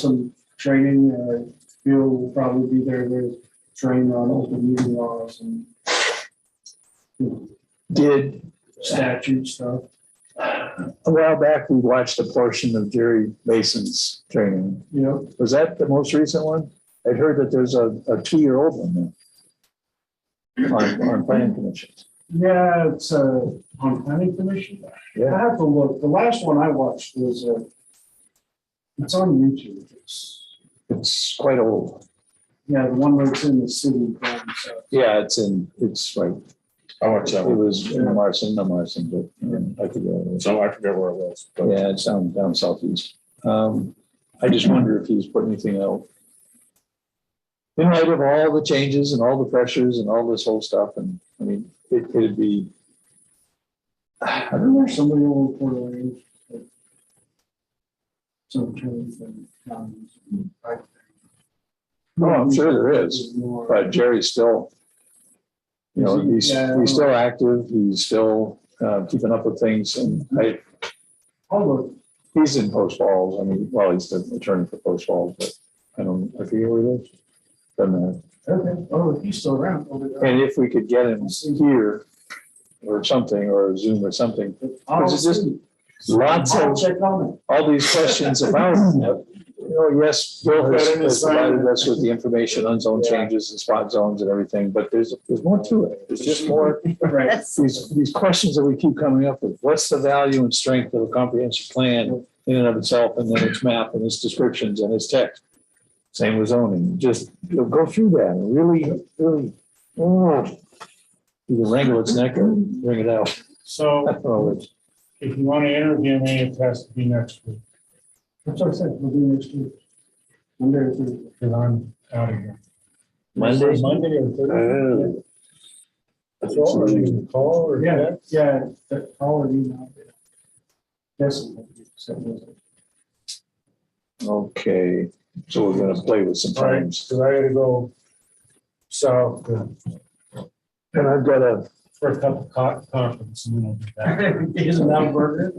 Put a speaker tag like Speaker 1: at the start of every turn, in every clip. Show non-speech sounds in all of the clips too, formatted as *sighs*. Speaker 1: some training, uh, Bill will probably be there to train on open meeting laws and you know,
Speaker 2: Did,
Speaker 1: statute stuff.
Speaker 2: a while back, we watched a portion of Jerry Mason's training.
Speaker 1: You know,
Speaker 2: Was that the most recent one? I'd heard that there's a, a two-year-old one now on, on planning commissions.
Speaker 1: yeah, it's uh, on planning commission. I
Speaker 2: Yeah,
Speaker 1: have to look. The last one I watched was, uh, it's on YouTube. It's,
Speaker 2: it's quite old.
Speaker 1: yeah, the one that's in the city. um, so,
Speaker 2: Yeah, it's in, it's like,
Speaker 3: I watched
Speaker 2: it
Speaker 3: that one.
Speaker 2: was in the Marson, the Marson, but um, I could go.
Speaker 3: So I forget where it was, but
Speaker 2: Yeah, it's down, down southeast. Um, I just wonder if he's put anything out. In light of all the changes and all the pressures and all this whole stuff, and, I mean, it, it'd be. *sighs* I
Speaker 1: I
Speaker 2: don't know,
Speaker 1: remember somebody will report on it. Some terms and comments.
Speaker 2: Oh, I'm sure there is,
Speaker 1: More-
Speaker 2: but Jerry's still, you know, he's,
Speaker 1: Yeah.
Speaker 2: he's still active, he's still, uh, keeping up with things, and I,
Speaker 4: Oh,
Speaker 1: Although,
Speaker 2: he's in Post Falls, I mean, well, he's the attorney for Post Falls, but I don't, I forget where it is. Doesn't matter.
Speaker 1: okay, oh, if he's still around. oh, but, uh,
Speaker 2: And if we could get him here or something, or Zoom or something,
Speaker 1: I'll
Speaker 2: Is it just
Speaker 1: see.
Speaker 2: lots
Speaker 1: I'll
Speaker 2: of,
Speaker 1: check on it.
Speaker 2: all these questions about, you know, yes, Bill has has provided us with the information on zone changes and spot zones and everything, but there's, there's more to it. There's just more, *laughs*
Speaker 1: Right,
Speaker 2: these, these questions that we keep coming up with. What's the value and strength of a comprehensive plan in and of itself, and then its map and its descriptions and its text? Same with zoning, just you know, go through that and really, really, oh, either wrangle its neck or wring it out. *laughs*
Speaker 4: So
Speaker 2: Oh, it's-
Speaker 4: if you want to interview me, it has to be next week
Speaker 1: that's what I said, we'll do next week. Monday or Thursday.
Speaker 4: because I'm out of here.
Speaker 2: Monday?
Speaker 4: Monday or Thursday. So are you gonna call or
Speaker 1: Yeah,
Speaker 4: text?
Speaker 1: yeah, that, all of you know. Yes.
Speaker 2: Okay, so we're gonna play with some
Speaker 4: All right,
Speaker 2: times.
Speaker 4: because I gotta go south to-
Speaker 2: And I've got a, *laughs*
Speaker 4: for a couple of co- conference and then I'll be back. *laughs*
Speaker 1: Is it now burger?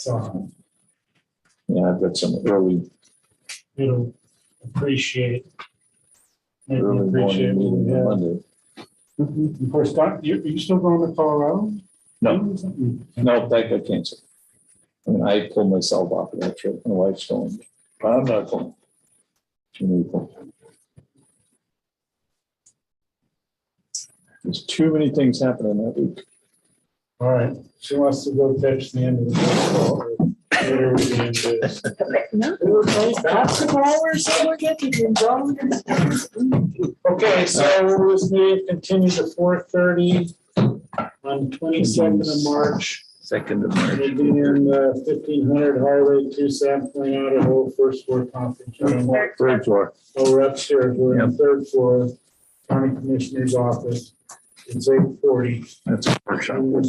Speaker 4: So
Speaker 2: yeah, I've got some early,
Speaker 4: it'll appreciate. Maybe
Speaker 2: early
Speaker 4: appreciate. Mm-hmm.
Speaker 2: morning
Speaker 4: what we
Speaker 2: meeting on
Speaker 4: have.
Speaker 2: Monday.
Speaker 4: Of course, Doc, you, you still going to Colorado? Mm-hmm.
Speaker 2: No, no, that got canceled. I mean, I pulled myself off of that trip. My wife's going, I'm not going. She knew going. There's too many things happening that week.
Speaker 4: All right, she wants to go catch the end of the. Whatever the end is. Okay, so we're with me, continue to four thirty on twenty-second of March.
Speaker 2: Second of
Speaker 4: We'll be in the fifteen hundred Highway two South Point Idaho first floor conference room.
Speaker 2: Third floor.
Speaker 4: Oh, we're upstairs, we're in the third floor, county commissioner's office. It's eight forty.
Speaker 2: That's a workshop.